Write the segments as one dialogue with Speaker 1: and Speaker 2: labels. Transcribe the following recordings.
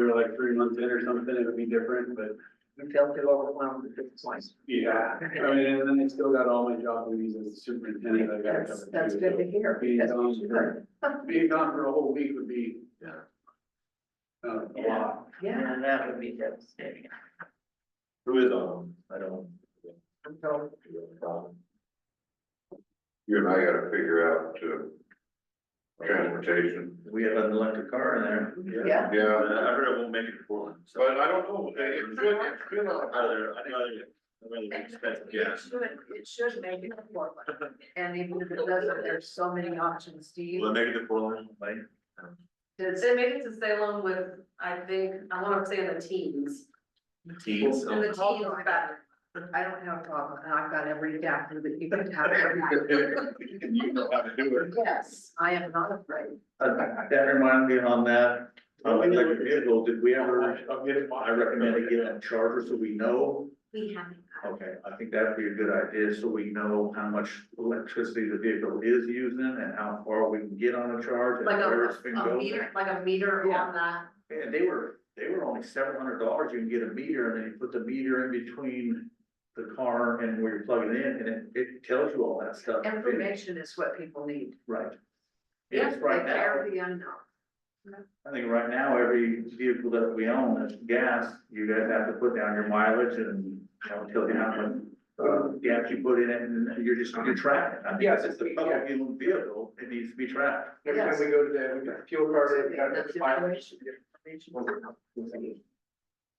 Speaker 1: like three months in or something, it would be different, but
Speaker 2: You feel too overwhelmed at this point.
Speaker 1: yeah. I mean, and then I still got all my job duties as superintendent. I gotta
Speaker 2: That's,
Speaker 1: cover
Speaker 2: that's
Speaker 1: too,
Speaker 2: good to
Speaker 1: so
Speaker 2: hear.
Speaker 1: Being
Speaker 2: That's
Speaker 1: gone
Speaker 2: good.
Speaker 1: for, being gone for a whole week would be, uh, a
Speaker 2: Yeah,
Speaker 1: lot.
Speaker 2: yeah, that would be devastating.
Speaker 3: Who is on? I don't.
Speaker 2: So,
Speaker 4: You and I gotta figure out, uh, transportation,
Speaker 3: We have an electric car in there.
Speaker 2: yeah,
Speaker 3: I
Speaker 4: yeah,
Speaker 3: heard it won't make it to Portland, so.
Speaker 4: but I don't know, it's been, it's been
Speaker 3: I'd
Speaker 4: on.
Speaker 3: rather, I'd rather, I'd rather expect
Speaker 2: it
Speaker 3: gas.
Speaker 2: should, it should make it affordable. And even if it doesn't, there's so many options, Steve.
Speaker 3: Will it make it to Portland? Like,
Speaker 2: Does
Speaker 5: They make it to Salem with, I think, I wanna say in the teens,
Speaker 3: Teens,
Speaker 5: in the
Speaker 3: so.
Speaker 5: teens, but
Speaker 2: I don't have a problem, and I've got every adapter that you could have.
Speaker 4: You know how to do it.
Speaker 2: Yes, I am not afraid.
Speaker 3: Uh, That reminds me on that, on the electric vehicle, did we ever,
Speaker 1: I'll get it.
Speaker 3: I recommend to get a charger so we know.
Speaker 5: we haven't.
Speaker 3: Okay, I think that'd be a good idea, so we know how much electricity the vehicle is using and how far we can get on a charge and
Speaker 5: Like
Speaker 3: where it's been
Speaker 5: a, a
Speaker 3: going.
Speaker 5: meter, like a meter
Speaker 2: Yeah.
Speaker 5: on that,
Speaker 3: Yeah, they were, they were only seven hundred dollars, you can get a meter, and then you put the meter in between the car and where you're plugging in, and it, it tells you all that stuff.
Speaker 2: Information is what people need.
Speaker 3: Right.
Speaker 5: Yeah,
Speaker 3: Yes, right
Speaker 2: They
Speaker 3: now,
Speaker 2: fear the unknown.
Speaker 3: I think right now, every vehicle that we own that's gas, you guys have to put down your mileage and, you know, tell you how much. Uh, gas you put in it, and you're just, you're tracking, I mean,
Speaker 1: Yes,
Speaker 3: it's a public vehicle, it needs to be tracked.
Speaker 1: Every time we go to the, we got the fuel card, we got
Speaker 2: That's
Speaker 1: the mileage.
Speaker 2: information.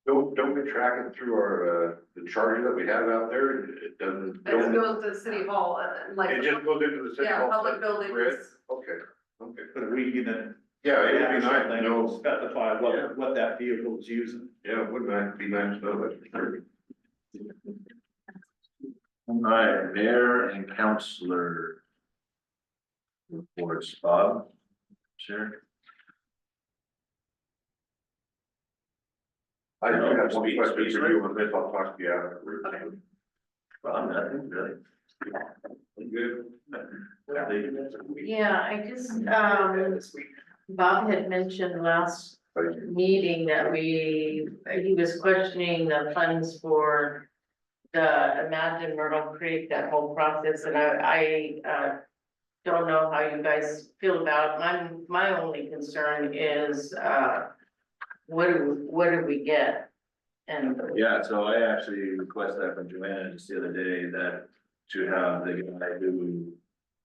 Speaker 4: Don't, don't we track it through our, uh, the charger that we have out there, it doesn't,
Speaker 5: it just
Speaker 4: don't,
Speaker 5: goes to city hall and then like.
Speaker 4: it just goes into the city
Speaker 5: Yeah,
Speaker 4: hall.
Speaker 5: public
Speaker 4: grid?
Speaker 5: buildings,
Speaker 4: Okay, okay,
Speaker 3: But we can then.
Speaker 4: yeah, it would be nice to know,
Speaker 3: Specify
Speaker 4: Yeah.
Speaker 3: what, what that vehicle is using.
Speaker 4: yeah, it would not be nice to know that.
Speaker 3: All right, mayor and councillor. Reports, Bob, Sharon.
Speaker 4: I do have one
Speaker 3: Speed-
Speaker 4: question
Speaker 3: speed
Speaker 4: for you on this, I'll talk to you afterwards.
Speaker 5: Okay.
Speaker 3: Bob, nothing really.
Speaker 4: You Good.
Speaker 6: Yeah, I just, um, Bob had mentioned last
Speaker 4: Thank
Speaker 6: meeting that we, he was questioning the funds for the Imagine Myrtle Creek, that whole process, and I, I, uh, don't know how you guys feel about, it. my, my only concern is, uh, what do, what do we get? And
Speaker 3: Yeah, so I actually requested that from Joanna just the other day that to have the guy who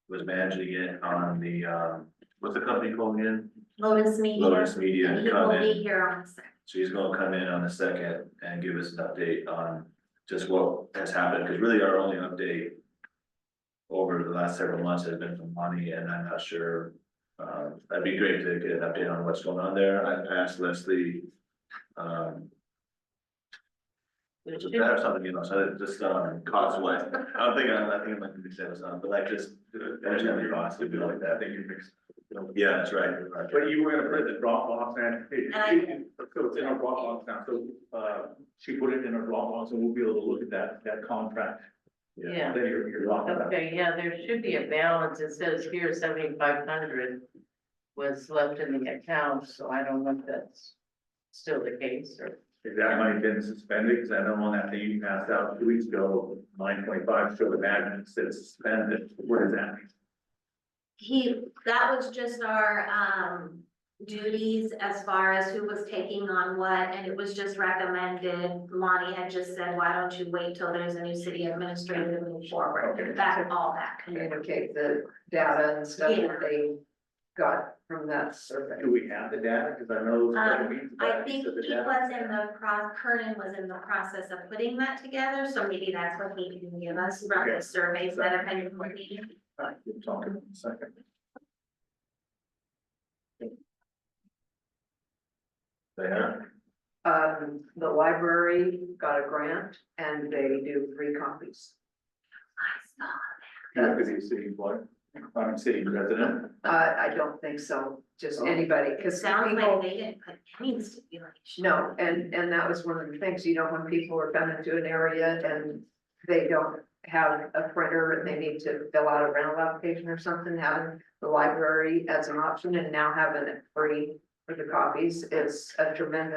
Speaker 3: was managing it on the, um, what's the company called again?
Speaker 5: Lotus Media,
Speaker 3: Lotus Media
Speaker 5: and
Speaker 3: to
Speaker 5: it
Speaker 3: come
Speaker 5: will
Speaker 3: in.
Speaker 5: be here on the second.
Speaker 3: So he's gonna come in on the second and give us an update on just what has happened, because really our only update. Over the last several months has been from Monty, and I'm not sure, um, that'd be great to get an update on what's going on there, I asked Leslie. Um,
Speaker 6: it
Speaker 3: just
Speaker 6: should-
Speaker 3: to have something, you know, so that just, um, cost wise, I'm thinking, I think it might be said or something, but like just, uh, there's gonna be costs to do like that.
Speaker 1: think you mixed.
Speaker 3: Yeah, that's right.
Speaker 1: But you were gonna put the Dropbox and it,
Speaker 5: I-
Speaker 1: it- so it's in our Dropbox now, so, uh, she put it in her Dropbox and we'll be able to look at that, that contract.
Speaker 6: Yeah.
Speaker 1: That you're, you're talking about.
Speaker 6: Okay, yeah, there should be a balance, it says here seventy-five hundred was left in the account, so I don't know if that's still the case or.
Speaker 3: Is that money been suspended? Because I know on that thing you passed out two weeks ago, nine twenty-five showed a magnet that said suspended. What does that mean?
Speaker 5: He, that was just our, um, duties as far as who was taking on what, and it was just recommended. Lonnie had just said, why don't you wait till there's a new city administrator to move
Speaker 3: Okay.
Speaker 5: forward, that, all that.
Speaker 2: Communicate the data and stuff that they got from that survey.
Speaker 3: Do we have the data? Because I know.
Speaker 5: Um, I think he was in the pro, Kernan was in the process of putting that together, so maybe that's what he can give us from
Speaker 3: Okay.
Speaker 5: the surveys that have been completed.
Speaker 3: We'll talk in a second. There.
Speaker 2: Um, the library got a grant and they do free copies.
Speaker 5: I saw
Speaker 3: Because he's city boy, I'm city president.
Speaker 2: Uh, I don't think so,
Speaker 4: Oh.
Speaker 2: just anybody,
Speaker 5: It
Speaker 2: because some
Speaker 5: sounds
Speaker 2: people,
Speaker 5: like they didn't put any stipulation.
Speaker 2: no, and, and that was one of the things, you know, when people are coming to an area and they don't have a printer and they need to fill out a rental application or something, having the library as an option and now having it free for the copies is a tremendous